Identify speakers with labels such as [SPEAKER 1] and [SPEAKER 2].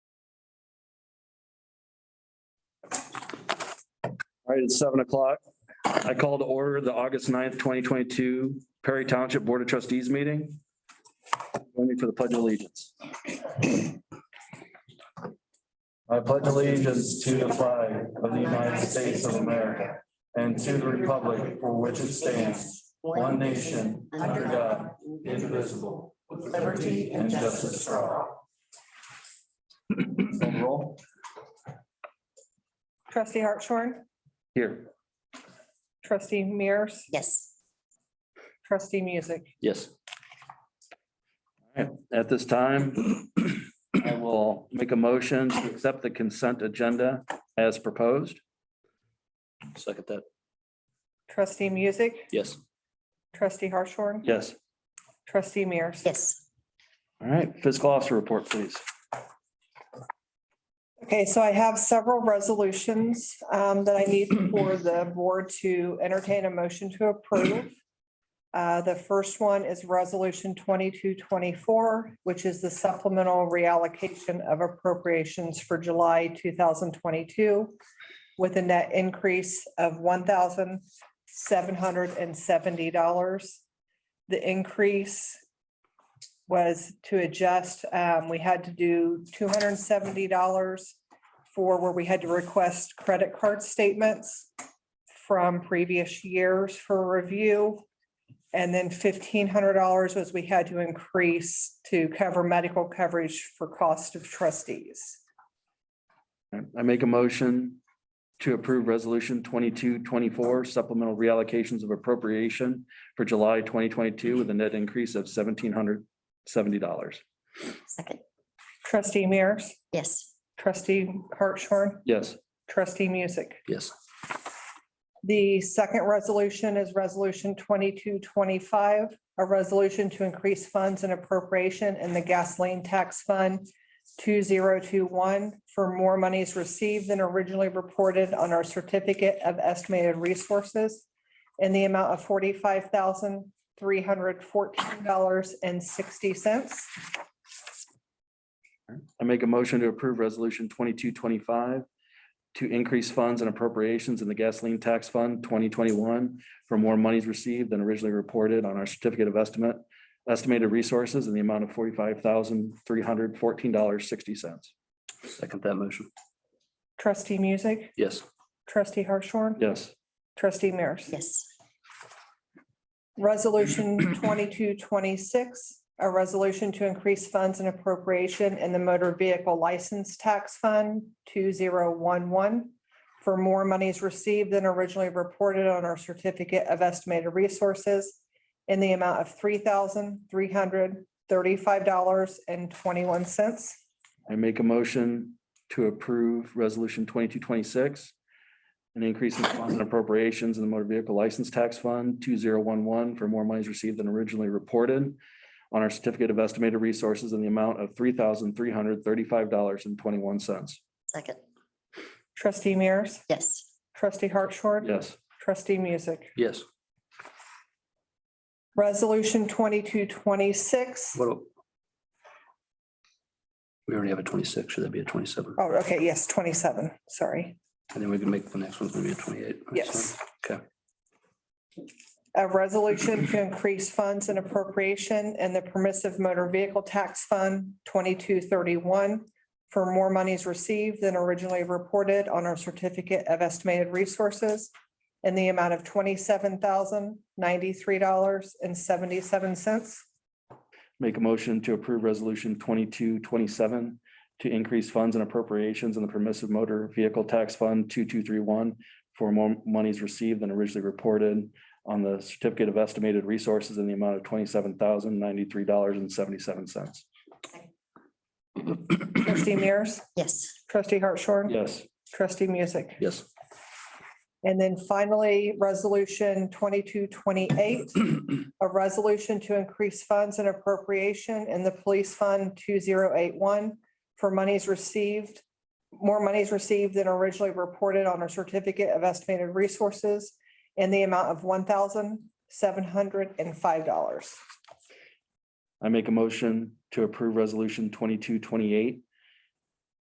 [SPEAKER 1] All right, it's seven o'clock. I call to order the August 9th, twenty twenty-two Perry Township Board of Trustees meeting. Join me for the pledge of allegiance. I pledge allegiance to the flag of the United States of America and to the republic for which it stands, one nation, under God, indivisible, with liberty and justice for all. Call roll.
[SPEAKER 2] Trustee Hartshorn,
[SPEAKER 1] Here.
[SPEAKER 2] trustee Mears,
[SPEAKER 3] Yes,
[SPEAKER 2] trustee Music.
[SPEAKER 1] Yes. At this time, I will make a motion to accept the consent agenda as proposed.
[SPEAKER 4] Second that,
[SPEAKER 2] Trustee Music,
[SPEAKER 4] yes.
[SPEAKER 2] trustee Hartshorn,
[SPEAKER 1] Yes.
[SPEAKER 2] trustee Mears.
[SPEAKER 3] yes.
[SPEAKER 1] All right, fiscal officer report, please.
[SPEAKER 2] Okay, so I have several resolutions um, that I need for the board to entertain a motion to approve. Uh, The first one is Resolution 2224, which is the supplemental reallocation of appropriations for July 2022 with a net increase of $1,770. The increase was to adjust, um, we had to do two hundred and seventy dollars for where we had to request credit card statements from previous years for review. And then fifteen hundred dollars was we had to increase to cover medical coverage for cost of trustees.
[SPEAKER 1] I make a motion to approve resolution twenty-two twenty-four supplemental reallocations of appropriation for July twenty twenty-two with a net increase of seventeen hundred seventy dollars.
[SPEAKER 3] Second,
[SPEAKER 2] Trustee Mears,
[SPEAKER 3] yes.
[SPEAKER 2] trustee Hartshorn,
[SPEAKER 1] Yes.
[SPEAKER 2] trustee Music.
[SPEAKER 4] Yes.
[SPEAKER 2] The second resolution is Resolution twenty-two twenty-five, a resolution to increase funds and appropriation in the gasoline tax fund two zero two one for more monies received than originally reported on our certificate of estimated resources in the amount of forty-five thousand three hundred fourteen dollars and sixty cents.
[SPEAKER 1] I make a motion to approve resolution twenty-two twenty-five to increase funds and appropriations in the gasoline tax fund twenty twenty-one for more monies received than originally reported on our certificate of estimate, estimated resources in the amount of forty-five thousand, three hundred, fourteen dollars, sixty cents.
[SPEAKER 4] Second that motion,
[SPEAKER 2] Trustee Music,
[SPEAKER 4] yes.
[SPEAKER 2] trustee Harshorn,
[SPEAKER 1] Yes.
[SPEAKER 2] trustee Mears.
[SPEAKER 3] Yes,
[SPEAKER 2] Resolution twenty-two twenty-six, a resolution to increase funds and appropriation in the motor vehicle license tax fund two zero one one for more monies received than originally reported on our certificate of estimated resources in the amount of three thousand three hundred thirty-five dollars and twenty-one cents.
[SPEAKER 1] I make a motion to approve resolution twenty-two twenty-six an increase in funds and appropriations in the motor vehicle license tax fund two zero one one for more monies received than originally reported on our certificate of estimated resources in the amount of three thousand three hundred thirty-five dollars and twenty-one cents.
[SPEAKER 3] second,
[SPEAKER 2] Trustee Mears,
[SPEAKER 3] yes.
[SPEAKER 2] trustee Hartshorn,
[SPEAKER 1] Yes.
[SPEAKER 2] trustee Music.
[SPEAKER 4] Yes.
[SPEAKER 2] Resolution twenty-two twenty-six.
[SPEAKER 4] What? do- We already have a twenty-six, should that be a twenty-seven?
[SPEAKER 2] Oh, okay, yes, twenty-seven, sorry.
[SPEAKER 4] And then we can make the next one's gonna be a twenty-eight.
[SPEAKER 2] Yes.
[SPEAKER 4] Okay.
[SPEAKER 2] A resolution to increase funds and appropriation in the permissive motor vehicle tax fund twenty-two thirty-one for more monies received than originally reported on our certificate of estimated resources in the amount of twenty-seven thousand ninety-three dollars and seventy-seven cents.
[SPEAKER 1] Make a motion to approve resolution twenty-two twenty-seven to increase funds and appropriations in the permissive motor vehicle tax fund two-two-three-one for more monies received than originally reported on the certificate of estimated resources in the amount of twenty-seven thousand ninety-three dollars and seventy-seven cents.
[SPEAKER 2] Trustee Mears,
[SPEAKER 3] Yes,
[SPEAKER 2] trustee Hartshorn.
[SPEAKER 1] Yes,
[SPEAKER 2] Trustee Music.
[SPEAKER 4] Yes.
[SPEAKER 2] And then finally, resolution twenty-two twenty-eight, a resolution to increase funds and appropriation in the police fund two zero eight one for monies received, more monies received than originally reported on our certificate of estimated resources in the amount of one thousand seven hundred and five dollars.
[SPEAKER 1] I make a motion to approve resolution twenty-two twenty-eight